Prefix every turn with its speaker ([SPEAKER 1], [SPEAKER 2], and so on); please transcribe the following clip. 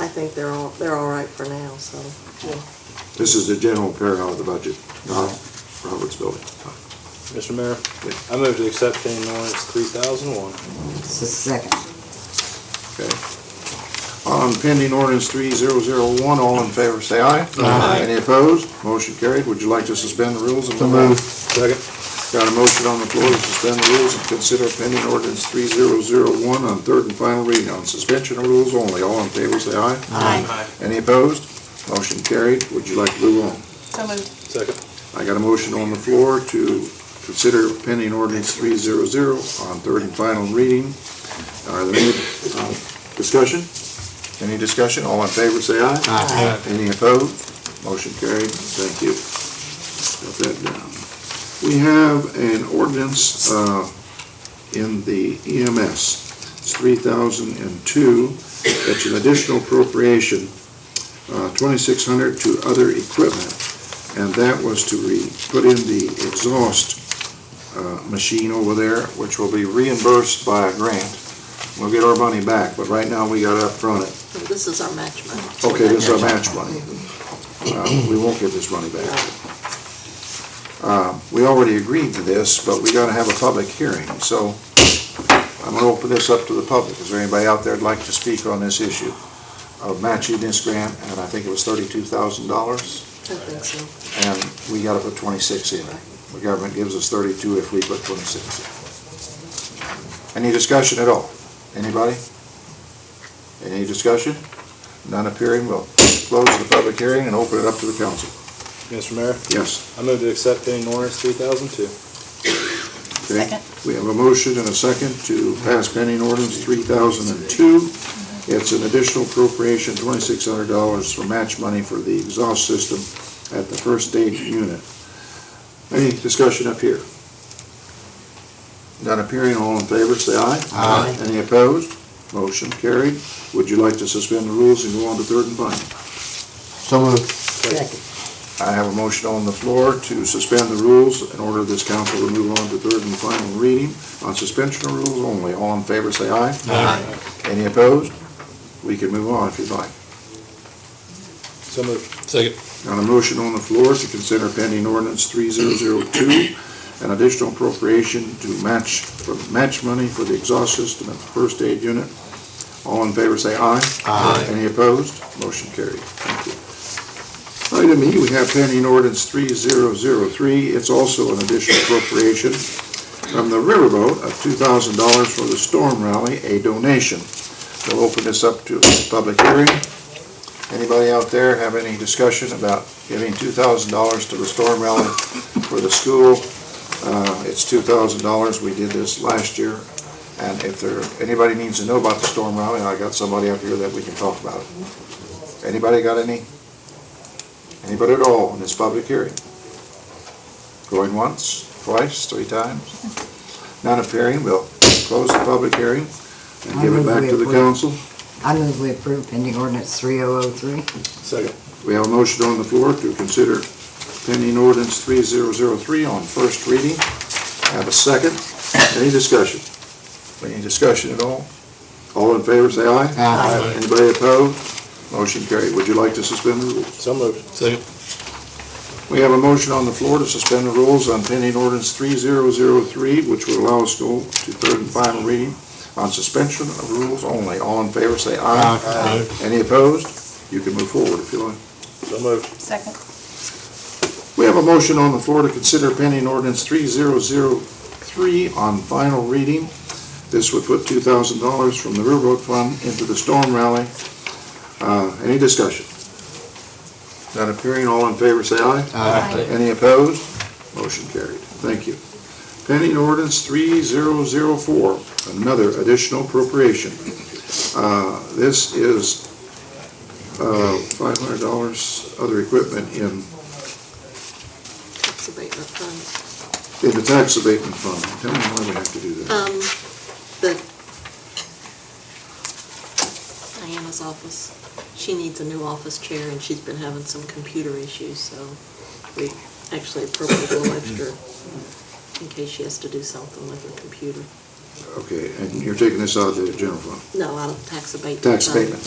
[SPEAKER 1] I think they're all, they're all right for now, so.
[SPEAKER 2] This is the general pair out of the budget, not Robert's building.
[SPEAKER 3] Mr. Mayor, I move to accept pending ordinance three thousand one.
[SPEAKER 4] Just a second.
[SPEAKER 2] Okay. On Um, pending ordinance three zero zero one, all in favor, say aye. Aye. Any opposed? Motion carried. Would you like to suspend the rules and move out?
[SPEAKER 3] Second.
[SPEAKER 2] Got a motion on the floor to suspend the rules and consider pending ordinance three zero zero one on third and final reading on suspension of rules only. All in favor, say aye.
[SPEAKER 3] Aye.
[SPEAKER 2] Any opposed? Motion carried. Would you like to move on?
[SPEAKER 5] So moved.
[SPEAKER 3] Second.
[SPEAKER 2] I got a motion on the floor to consider pending ordinance three zero zero on third and final reading. Are there any uh, discussion? Any discussion? All in favor, say aye.
[SPEAKER 4] Aye.
[SPEAKER 2] Any opposed? Motion carried. Thank you. Got that down. We have an ordinance uh, in the EMS. It's three thousand and two. It's an additional appropriation, uh, twenty-six hundred to other equipment and that was to re, put in the exhaust uh, machine over there, which will be reimbursed by a grant. We'll get our money back, but right now we got to upfront it.
[SPEAKER 1] This is our match money.
[SPEAKER 2] Okay, this is our match money. Uh, We won't get this money back. Uh, We already agreed to this, but we got to have a public hearing, so I'm going to open this up to the public. Is there anybody out there that'd like to speak on this issue of matching this grant? And I think it was thirty-two thousand dollars?
[SPEAKER 1] I think so.
[SPEAKER 2] and we gotta put twenty-six in. The government gives us thirty-two if we put twenty-six in. Any discussion at all? Anybody? Any discussion? None appearing, we'll close the public hearing and open it up to the council.
[SPEAKER 3] Mr. Mayor,
[SPEAKER 2] Yes.
[SPEAKER 3] I move to accept pending ordinance three thousand two.
[SPEAKER 2] okay.
[SPEAKER 5] Second.
[SPEAKER 2] We have a motion and a second to pass pending ordinance three thousand and two. It's an additional appropriation, twenty-six hundred dollars for match money for the exhaust system at the first aid unit. Any discussion up here? Not appearing, all in favor, say aye.
[SPEAKER 4] Aye.
[SPEAKER 2] Any opposed? Motion carried. Would you like to suspend the rules and go on to third and final?
[SPEAKER 4] So moved. Second.
[SPEAKER 2] I have a motion on the floor to suspend the rules in order this council to move on to third and final reading on suspension of rules only. All in favor, say aye.
[SPEAKER 3] Aye.
[SPEAKER 2] Any opposed? We can move on if you'd like.
[SPEAKER 3] So moved. Second.
[SPEAKER 2] Got a motion on the floor to consider pending ordinance three zero zero two, an additional appropriation to match, for match money for the exhaust system at the first aid unit. All in favor, say aye. Aye. Any opposed? Motion carried. Thank you. Item E, we have pending ordinance three zero zero three. It's also an additional appropriation from the riverboat of two thousand dollars for the storm rally, a donation. We'll open this up to a public hearing. Anybody out there have any discussion about giving two thousand dollars to the storm rally for the school? Uh, it's two thousand dollars, we did this last year, and if there, anybody needs to know about the storm rally, I got somebody up here that we can talk about it. Anybody got any? Anybody at all in this public hearing? Going once, twice, three times? Not appearing, we'll close the public hearing and give it back to the council.
[SPEAKER 4] I move we approve pending ordinance 3003.
[SPEAKER 3] Second.
[SPEAKER 2] We have a motion on the floor to consider pending ordinance three zero zero three on first reading. I Have a second. Any discussion? Any discussion at all? All in favor, say aye.
[SPEAKER 4] Aye.
[SPEAKER 2] Anybody opposed? Motion carried. Would you like to suspend the rules?
[SPEAKER 3] So moved. Second.
[SPEAKER 2] We have a motion on the floor to suspend the rules on pending ordinance three zero zero three, which would allow us to go to third and final reading on suspension of rules only. All in favor, say aye. Aye. Any opposed? You can move forward if you like.
[SPEAKER 3] So moved.
[SPEAKER 5] Second.
[SPEAKER 2] We have a motion on the floor to consider pending ordinance three zero zero three on final reading. This would put two thousand dollars from the railroad fund into the storm rally. Uh, any discussion? Not appearing, all in favor, say aye.
[SPEAKER 5] Aye.
[SPEAKER 2] Any opposed? Motion carried. Thank you. Pending ordinance three zero zero four, another additional appropriation. Uh, this is, uh, five hundred dollars other equipment in
[SPEAKER 1] Tax abatement fund.
[SPEAKER 2] In the tax abatement fund, tell me why we have to do that.
[SPEAKER 1] Um, the Diana's office, she needs a new office chair and she's been having some computer issues, so we actually appropriated a little extra in case she has to do something with her computer.
[SPEAKER 2] Okay, and you're taking this out of the general fund,
[SPEAKER 1] No, out of tax abatement.
[SPEAKER 2] tax
[SPEAKER 1] fund.
[SPEAKER 2] abatement.